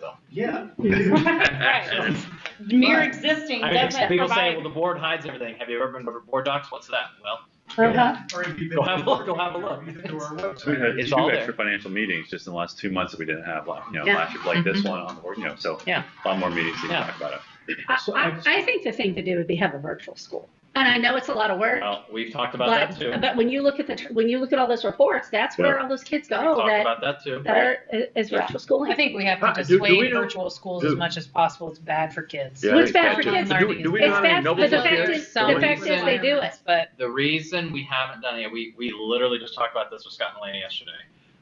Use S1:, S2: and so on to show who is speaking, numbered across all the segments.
S1: Yeah.
S2: Right. Mere existing
S3: I mean,
S2: doesn't
S3: people say,
S2: provide.
S3: well, the board hides everything. Have you ever been over to board docs? What's that? Well,
S2: Uh-huh.
S1: Or if you've been
S3: Go have a look, go have a
S1: to our-
S3: look.
S1: you've been to our
S4: So we
S1: website.
S4: had
S3: It's
S4: two
S3: all
S4: extra financial meetings just in the last two months that we didn't have, like, you know,
S5: Yeah.
S4: last
S5: Mm-hmm.
S4: year, like this one on, or, you know, so.
S3: Yeah.
S4: A lot more meetings to
S3: Yeah.
S4: talk about it.
S5: I,
S1: So
S5: I,
S1: I've-
S5: I think the thing to do would be have a virtual school. And I know it's a lot of work,
S3: well, we've talked Oh, about
S5: but,
S3: that too.
S5: but when you look at the, tr- when you look at all those reports, that's where all those kids
S3: We've
S5: go
S3: talked
S5: Oh, that,
S3: about that too.
S5: that are, is virtual schooling.
S2: I think we have
S6: Uh,
S2: to
S6: do- do we
S2: dissuade
S6: know-
S2: virtual schools as
S6: do-
S2: much as possible. It's bad for kids.
S6: Yeah,
S5: Well, it's
S6: they
S5: bad for
S6: can't
S5: kids.
S6: do- Do, do we
S5: It's
S6: know how many
S5: bad-
S6: noble
S5: but the
S6: kids?
S5: fact is- the fact is they do it.
S2: But
S3: The reason we haven't done it, we, we literally just talked about this with Scott and Lana yesterday.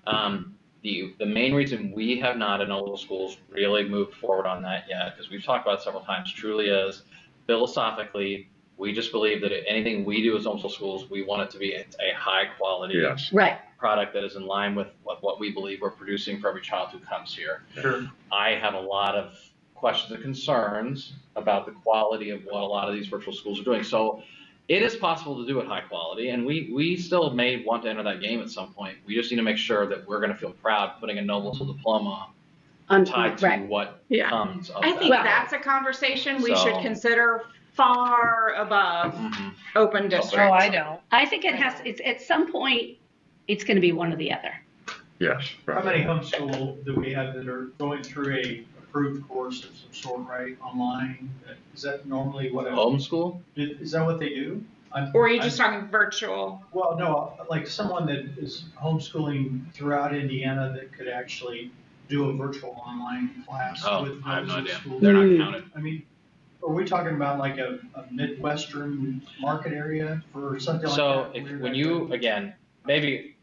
S3: Um, the, the main reason we have not in Noble Schools really moved forward on that yet, because we've talked about it several times, truly is philosophically, we just believe that anything we do as Noble Schools, we want it to be a, a high quality
S6: Yes.
S5: Right.
S3: product that is in line with, with what we believe we're producing for every child who comes here.
S1: Sure.
S3: I have a lot of questions and concerns about the quality of what a lot of these virtual schools are doing. So it is possible to do it high quality, and we, we still may want to enter that game at some point. We just need to make sure that we're going to feel proud putting a Noble School diploma
S5: Um,
S3: tied to
S5: right.
S3: what
S5: Yeah.
S3: comes of
S7: I
S3: that.
S7: think that's a conversation we
S3: So-
S7: should consider far above
S3: Mhm.
S7: open
S2: oh,
S7: district.
S2: I don't.
S5: I think it has, it's, at some point, it's going to be one or the other.
S6: Yes.
S1: How
S6: right.
S1: many homeschool do we have that are going through a approved course of some sort, right, online? Is that normally what, I-
S3: Homeschool?
S1: is that what they do? I'm-
S7: Or are you
S1: I'm-
S7: just talking virtual?
S1: Well, no, uh, like someone that is homeschooling throughout Indiana that could actually do a virtual online class
S3: Oh,
S1: with
S3: I have no
S1: those
S3: idea.
S1: schools.
S3: They're
S5: Mm.
S3: not counted.
S1: I mean, are we talking about like a, a Midwestern market area for something like that?
S3: So if, when you, again, maybe,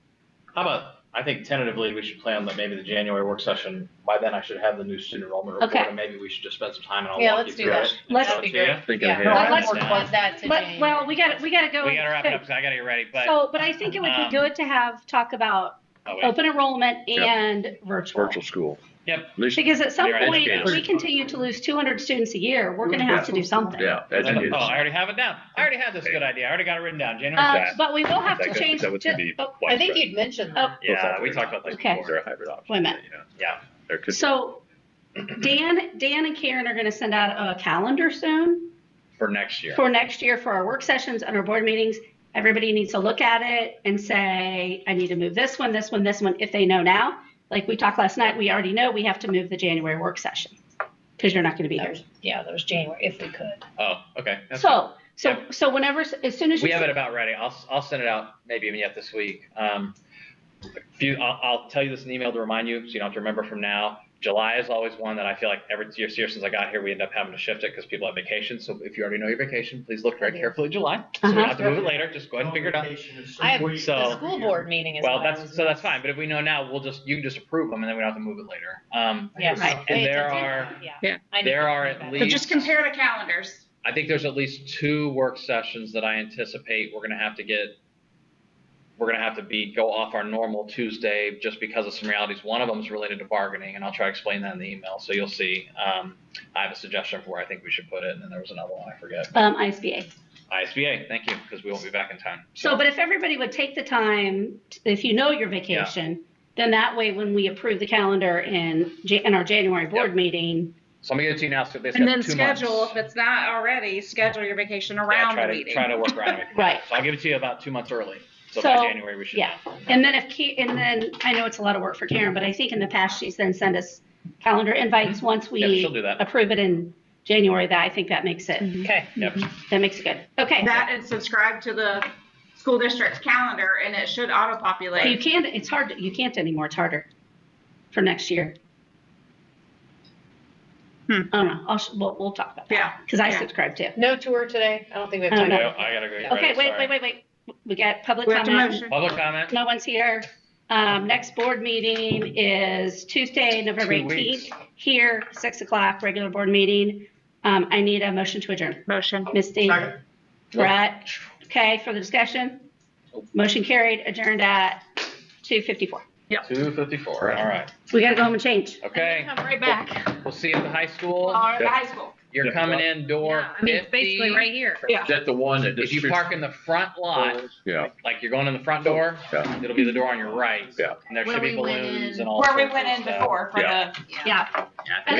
S3: how about, I think tentatively we should plan that maybe the January work session, by then I should have the new student enrollment report.
S5: Okay.
S3: And maybe we should just spend some time and I'll
S2: Yeah,
S3: walk
S2: let's
S3: you
S2: do
S3: through
S2: that.
S3: it. and
S5: Let's-
S3: show it to you.
S4: Thinking
S2: Yeah,
S4: ahead.
S3: No, I
S2: I'd
S3: like
S2: like to work
S3: that.
S2: towards that
S5: Let-
S2: today.
S5: Well, we got, we got to go.
S3: We gotta wrap it up,
S5: so-
S3: because I gotta get ready, but.
S5: So, but I think it would be
S3: Um,
S5: good to have, talk about
S3: oh, wait.
S5: open enrollment
S6: Yeah.
S5: and virtual.
S6: Virtual school.
S3: Yep.
S6: At least-
S5: Because at some
S3: You're
S5: point, if
S3: educators.
S5: we continue to lose 200 students a year, we're going to have to do something.
S6: Yeah.
S3: Oh,
S6: educators.
S3: I already have it down. I already had this good idea. I already got it written down, January
S5: Uh,
S3: sixth.
S5: But we will have
S4: Is
S5: to
S4: that
S5: change.
S4: good? Is that what's gonna be
S5: ju- oh,
S2: I think
S4: widespread?
S2: you'd mentioned
S5: Oh.
S2: that.
S3: Yeah, we talked about this
S5: Okay.
S4: Is there
S3: before.
S4: a hybrid option?
S5: Wait a minute.
S4: Yeah.
S3: Yeah.
S4: There could be.
S5: So Dan, Dan and Karen are going to send out a calendar soon
S3: For next year.
S5: for next year for our work sessions and our board meetings. Everybody needs to look at it and say, I need to move this one, this one, this one, if they know now. Like we talked last night, we already know we have to move the January work session because you're not going to be
S2: That
S5: here.
S2: was- Yeah, that was January, if we could.
S3: Oh, okay. That's fine.
S5: So, so, so whenever, as soon as
S3: We
S5: you,
S3: have it about ready. I'll, I'll send it out maybe even yet this week. Um, if you, I'll, I'll tell you this in email to remind you, so you don't have to remember from now. July is always one that I feel like every year, year since I got here, we end up having to shift it because people have vacations. So if you already know your vacation, please look very
S2: Okay.
S3: carefully at July. So we
S5: Uh-huh.
S3: don't have to move it later. Just go ahead and figure it out.
S2: I have
S3: So-
S2: the school board meeting is.
S3: Well,
S2: when I
S3: that's,
S2: was
S3: so that's
S2: in-
S3: fine. But if we know now, we'll just, you can just approve them and then we don't have to move it later. Um,
S2: Yeah.
S5: Right.
S3: and
S2: Wait,
S3: there
S2: it's-
S3: are,
S2: Yeah. I need
S3: there
S2: to
S3: are
S2: think
S3: at
S2: about it.
S7: So just compare the calendars.
S3: I think there's at least two work sessions that I anticipate we're gonna have to get. We're gonna have to be, go off our normal Tuesday just because of some realities. One of them is related to bargaining and I'll try to explain that in the email. So you'll see, um, I have a suggestion for where I think we should put it. And then there was another one, I forget.
S5: um, ISBA.
S3: ISBA, thank you, because we won't be back in time.
S5: So, but if everybody would take the time, t- if you know your vacation, then that way when we approve the calendar in, Ja- in our January board
S3: Yep.
S5: meeting,
S3: So I'm gonna get it to you now, so they
S7: And
S3: got
S7: then
S3: two
S7: schedule,
S3: months.
S7: if it's not already, schedule your vacation
S3: Yeah,
S7: around
S3: try
S7: the
S3: to, try
S7: meeting.
S3: to work around it.
S5: Right.
S3: So I'll give it to you about two months early. So by
S5: So,
S3: January, we should.
S5: yeah. And then if, Ki- and then, I know it's a lot of work for Karen, but I think in the past, she's then sent us calendar invites once
S3: Yeah, she'll
S5: we
S3: do that.
S5: approve it in January, that, I think that makes it,
S2: Okay.
S3: Yep.
S5: that makes it good. Okay.
S7: That and subscribe to the school district's calendar and it should
S5: You
S7: auto-populate.
S5: can't, it's hard, you can't anymore, it's harder for next year.
S7: Hmm.
S5: I don't know, I'll, sh- we'll, we'll talk about that,
S7: Yeah.
S5: because I
S7: Yeah.
S5: subscribe too.
S2: No tour today. I don't think we have
S5: I
S2: time.
S5: don't
S3: I
S5: know.
S2: to-
S3: I gotta go. get
S5: Okay,
S3: ready,
S5: wait,
S3: sorry.
S5: wait, wait, wait, we got public
S7: We have to
S5: comment.
S7: motion.
S3: Public comment?
S5: No one's here. Um, next board meeting is Tuesday, November
S3: Two weeks.
S5: eighteenth, here, six o'clock, regular board meeting. Um, I need a motion to adjourn.
S7: Motion.
S5: Misty, Brett, okay, for the discussion? Motion carried, adjourned at two fifty-four.
S3: Two fifty-four,
S6: Right.
S3: all right.
S5: We gotta go home and change.
S3: Okay,
S7: Come right back.
S3: we'll see you at the high
S7: All
S3: school.
S7: right, the high school.
S3: You're
S6: Yeah.
S3: coming in door
S7: Yeah, I mean,
S3: fifty. Basically right here.
S6: Is that the one that
S3: If
S6: just
S3: you
S6: shoots-
S3: park in the front lot,
S6: Yeah,
S3: like you're going in the front door,
S6: yeah.
S3: it'll be the door on your right.
S6: Yeah.
S3: And there
S8: Where
S3: should be
S8: we went
S3: balloons
S8: in-
S3: and all
S7: Where we
S3: sorts
S7: went
S3: of
S7: in
S3: stuff.
S7: before for
S6: Yeah.
S7: the.
S5: Yeah.
S3: Yeah, I think